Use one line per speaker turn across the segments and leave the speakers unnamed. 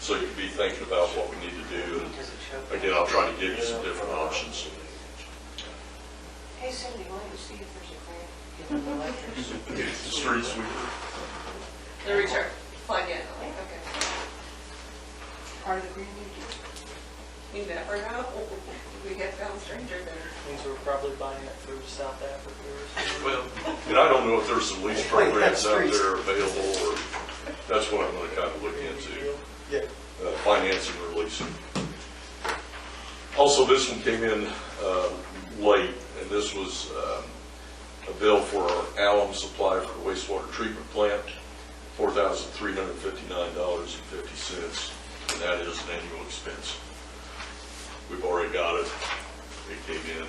So you'd be thinking about what we need to do,
Does it show?
and again, I'll try to give you some different options.
Hey Cindy, why don't you see if there's a grant?
Give them electric.
The street sweeper,
The return, fine, yeah, okay.
Part of the green new deal?
You never know, we have found stranger there.
Means we're probably buying it through South Africa or something.
well, and I don't know if there's some lease programs out there available, or, that's what I'm gonna kind of look into.
Yeah.
uh, financing or leasing. Also, this one came in uh, late, and this was um, a bill for our alum supply for the wastewater treatment plant, $4,359.50, and that is an annual expense. We've already got it. It came in.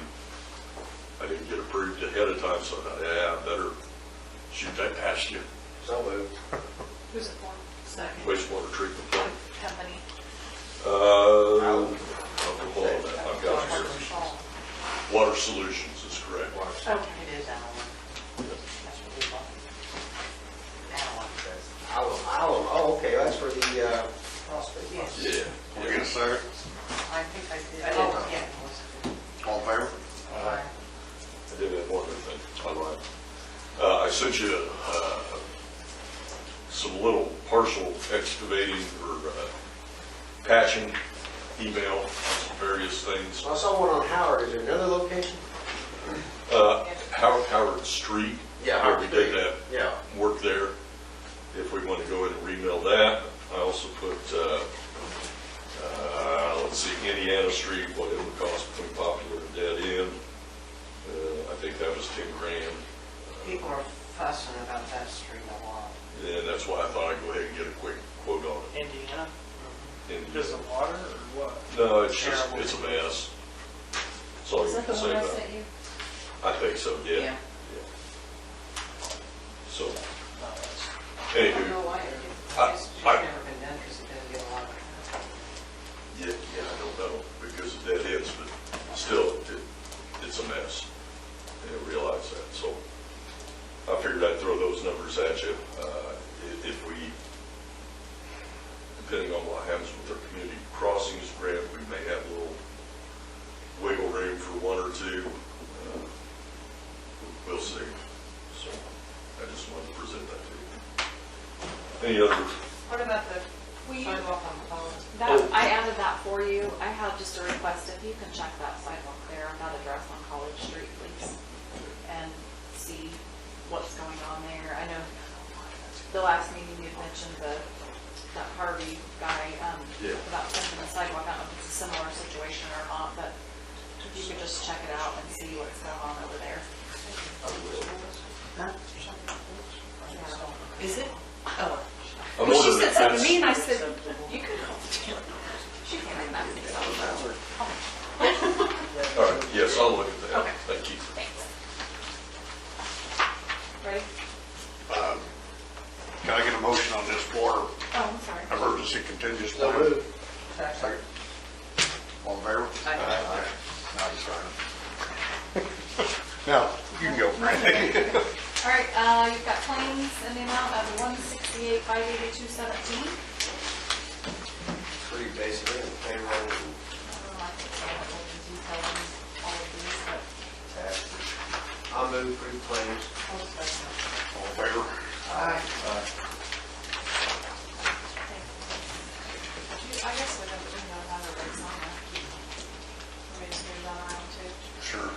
I didn't get approved ahead of time, so I thought, yeah, I better shoot that past you,
So moved.
Who's it for?
Second
wastewater treatment plant.
company.
Uh, I'll pull all that. I've got it here.
Oh,
Water Solutions is correct.
It is Allen. That's what we bought. Allen.
Alum, alum, oh, okay, that's for the uh, phosphate.
Yes.
Yeah.
We're gonna second,
I think I
I
did.
did.
Oh, yeah. it was.
all in favor?
Allen.
I did have one other thing. All right. Uh, I sent you, uh, some little partial excavating or uh, patching email, on some various things.
I saw one on Howard, is there another location?
Uh, Howard, Howard Street. Where we did that
Yeah.
work there, if we want to go in and remill that. I also put, uh, uh, let's see, Indiana Street, what it would cost between Popular and Dead End. Uh, I think that was 10 grand,
Uh, People are fussing about that street a lot.
and that's why I thought I'd go ahead and get a quick quote on it.
Indiana?
And-
Because of water or what?
No, it's just, it's a mess. That's all
Was
you
that the
can
one
say
I
about it.
sent you?
I think so, yeah.
Yeah.
So,
No, it's-
I don't know
anywho,
why it didn't.
I-
It's just
I-
never been done because it doesn't get a lot of.
yeah, yeah, I don't know, because of Dead Ends, but still, it- it's a mess. I didn't realize that, so I figured I'd throw those numbers at you. Uh, i- If we, depending on what happens with our community crossings grant, we may have a little wiggle room for one or two. Uh, We'll see. So I just wanted to present that to you. Any other,
What about the
Will you-
sidewalk on the phones?
Oh.
That, I added that for you. I have just a request, if you can check that sidewalk there on that address on College Street, please, and see what's going on there. I know the last meeting you had mentioned the, that Harvey guy, um,
Yeah.
about something on the sidewalk. I don't know if it's a similar situation or not, but if you could just check it out and see what's going on over there.
Is it? Oh.
I'm
Well, she
wondering
said
if
something to
that's,
me, and I said, you can call the town. She can't mess this up.
all right, yes, I'll look at that.
Okay.
Thank you.
Thanks. Ready?
Um, Can I get a motion on this water
Oh, I'm sorry.
emergency contingency
So
plan?
moved.
Second.
Second. All in favor?
Aye.
Okay. Now you sign it. Now, you can go, Randy.
All right, uh, you've got claims in the amount of one sixty-eight, five eighty-two, seventeen.
Pretty basically, in favor of
I don't know, I think I have all the detail on all of these, but
taxes. I'll move through claims.
I'll just let you know.
All in favor?
Aye.
You- I guess we don't, we don't have a raise on that. Let me just move that around too.
Sure.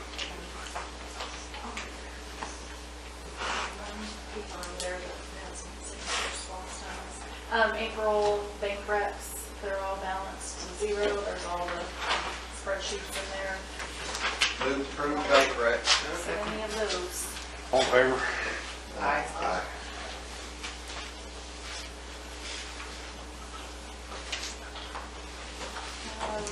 Um, April bank recs, they're all balanced to zero, there's all the spreadsheets in there,
Move through bank recs.
so any of those.
All in favor?
Aye.
Aye.
Um,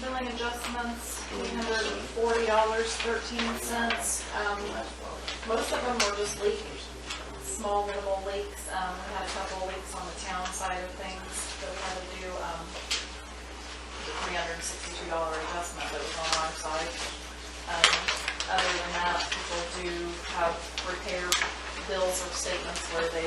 Billing adjustments, three hundred and forty dollars, thirteen cents. Um, most of them were just leaks, small minimal leaks. Um, we had a couple leaks on the town side of things that we had to do, um, the three hundred and sixty-two dollar adjustment that was on our side. Um, other than that, people do have repair bills or statements where they